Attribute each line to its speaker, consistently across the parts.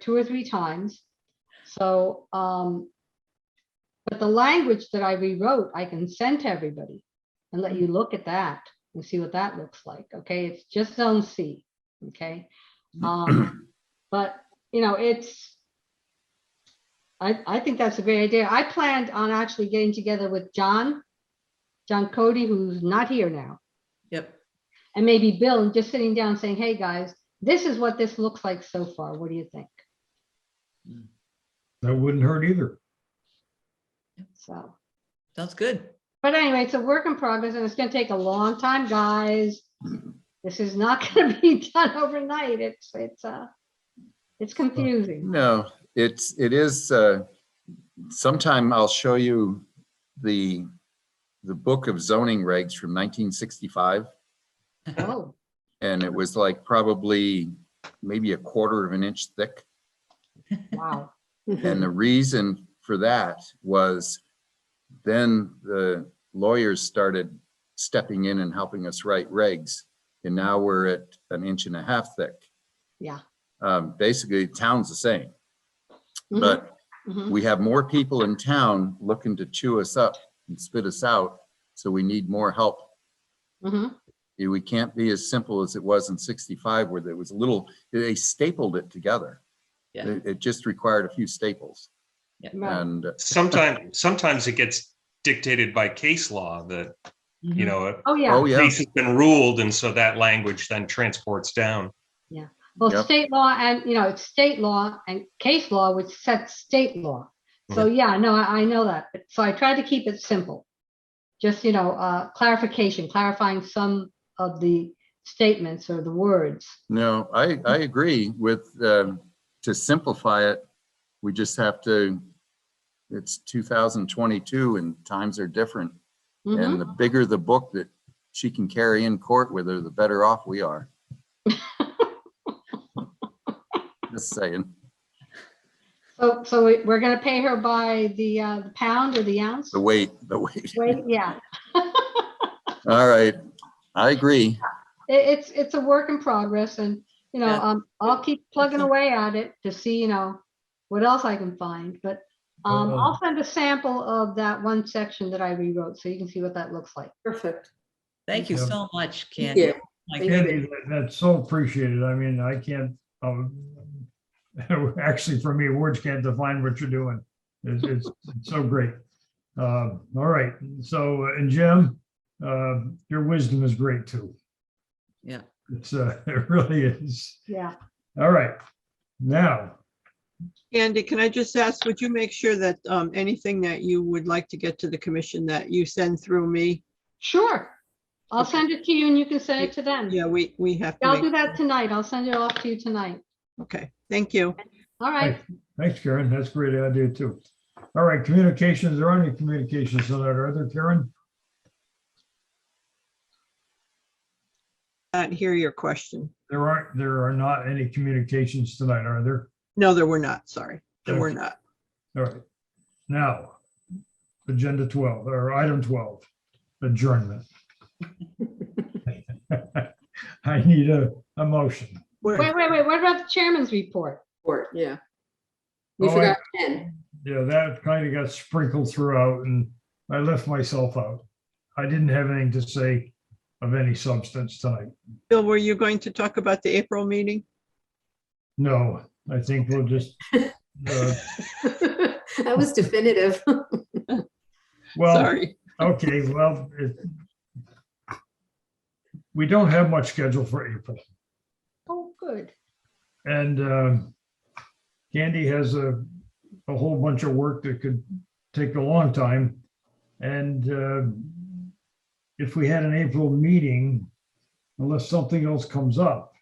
Speaker 1: two or three times. So, um, but the language that I rewrote, I can send to everybody and let you look at that and see what that looks like. Okay, it's just zone C, okay? Um, but, you know, it's, I, I think that's a great idea. I planned on actually getting together with John, John Cody, who's not here now,
Speaker 2: Yep,
Speaker 1: and maybe Bill, and just sitting down saying, hey, guys, this is what this looks like so far. What do you think?
Speaker 3: That wouldn't hurt either.
Speaker 1: So,
Speaker 2: sounds good.
Speaker 1: but anyway, it's a work in progress and it's gonna take a long time, guys. This is not gonna be done overnight. It's, it's, uh, it's confusing.
Speaker 4: No, it's, it is, uh, sometime I'll show you the, the book of zoning regs from nineteen sixty-five.
Speaker 1: Oh,
Speaker 4: And it was like probably maybe a quarter of an inch thick.
Speaker 1: wow.
Speaker 4: And the reason for that was then the lawyers started stepping in and helping us write regs. And now we're at an inch and a half thick.
Speaker 1: Yeah.
Speaker 4: Um, basically, town's the same,
Speaker 1: Mhm,
Speaker 4: but
Speaker 1: mhm.
Speaker 4: we have more people in town looking to chew us up and spit us out, so we need more help.
Speaker 1: Mhm.
Speaker 4: Eh, We can't be as simple as it was in sixty-five where there was a little, they stapled it together.
Speaker 2: Yeah.
Speaker 4: It, it just required a few staples
Speaker 1: Right.
Speaker 4: and, uh,
Speaker 5: Sometimes, sometimes it gets dictated by case law that, you know, a
Speaker 1: Oh, yeah.
Speaker 4: oh yeah,
Speaker 5: case has been ruled and so that language then transports down.
Speaker 1: Well,
Speaker 4: Yep.
Speaker 1: state law and, you know, it's state law and case law, which sets state law. So, yeah, no, I, I know that. But- So I tried to keep it simple. Just, you know, uh, clarification, clarifying some of the statements or the words.
Speaker 4: no, I, I agree with, um, to simplify it, we just have to, it's two thousand twenty-two and times are different.
Speaker 1: Mhm.
Speaker 4: And the bigger the book that she can carry in court with her, the better off we are. Just saying.
Speaker 1: So, so we- we're gonna pay her by the, uh, the pound or the ounce?
Speaker 4: The weight, the weight.
Speaker 1: Wait, yeah,
Speaker 4: All right. I agree.
Speaker 1: it, it's, it's a work in progress and, you know,
Speaker 2: Yeah.
Speaker 1: um, I'll keep plugging away at it to see, you know, what else I can find, but, um,
Speaker 4: Uh,
Speaker 3: Uh-oh.
Speaker 1: I'll send a sample of that one section that I rewrote, so you can see what that looks like.
Speaker 6: Perfect.
Speaker 2: Thank you
Speaker 3: Yeah.
Speaker 2: so much,
Speaker 6: Thank
Speaker 2: Candy. Oh
Speaker 6: you.
Speaker 2: My
Speaker 6: Thank
Speaker 2: goodness.
Speaker 3: Andy, that- that's so appreciated. I mean, I can't, um, actually, for me, words can't define what you're doing. It's, it's it's so great. Um, All right, so, and Jim, uh, your wisdom is great too.
Speaker 2: Yeah.
Speaker 3: It's, uh, it really is.
Speaker 1: Yeah,
Speaker 3: All right. Now,
Speaker 7: Andy, can I just ask, would you make sure that um, anything that you would like to get to the commission that you send through me?
Speaker 1: sure. I'll
Speaker 7: Okay.
Speaker 1: send it to you and you can send it to them.
Speaker 7: Yeah, we, we have to.
Speaker 1: I'll do
Speaker 7: make-
Speaker 1: that tonight. I'll send it off to you tonight.
Speaker 7: Okay, thank you.
Speaker 1: All right,
Speaker 3: thanks, Karen. That's a great idea too. All right, communications, there are any communications tonight, are there, Karen?
Speaker 7: I hear your question.
Speaker 3: There aren't, there are not any communications tonight, are there?
Speaker 7: No, there were not, sorry. There were
Speaker 3: Okay.
Speaker 7: not.
Speaker 3: All right. Now, agenda 12 or item 12, adjournment. I need a, a motion.
Speaker 7: Where-
Speaker 1: wait, wait, wait, what about the chairman's report?
Speaker 6: Or, yeah. We
Speaker 3: Oh, I-
Speaker 6: forgot Ken.
Speaker 3: Yeah, that kind of got sprinkled throughout and I left myself out. I didn't have anything to say of any substance tonight.
Speaker 7: Bill, were you going to talk about the April meeting?
Speaker 3: No, I think we'll just, uh,
Speaker 6: That was definitive.
Speaker 3: well,
Speaker 7: Sorry.
Speaker 3: okay, well, it- we don't have much scheduled for April.
Speaker 1: Oh, good.
Speaker 3: And um, Candy has a, a whole bunch of work that could take a long time. And um, if we had an April meeting, unless something else comes up,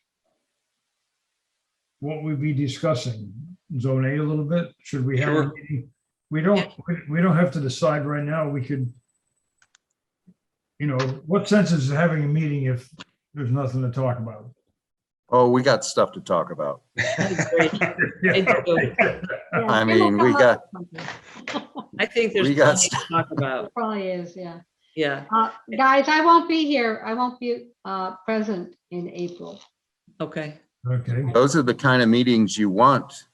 Speaker 3: what we'd be discussing, zone A a little bit, should we have? a
Speaker 5: Sure.
Speaker 3: meeting? We don't, we- we don't have to decide right now, we could, you know, what sense is having a meeting if there's nothing to talk about?
Speaker 4: Oh, we got stuff to talk about.
Speaker 2: I do.
Speaker 1: Yeah,
Speaker 4: I
Speaker 1: it will
Speaker 4: mean, we
Speaker 1: come up
Speaker 4: got,
Speaker 1: with something.
Speaker 2: I think there's
Speaker 4: We got
Speaker 2: plenty to talk about.
Speaker 1: Probably is, yeah.
Speaker 2: Yeah,
Speaker 1: Uh, guys, I won't be here. I won't be, uh, present in April.
Speaker 2: okay.
Speaker 3: Okay.
Speaker 4: those are the kind of meetings you want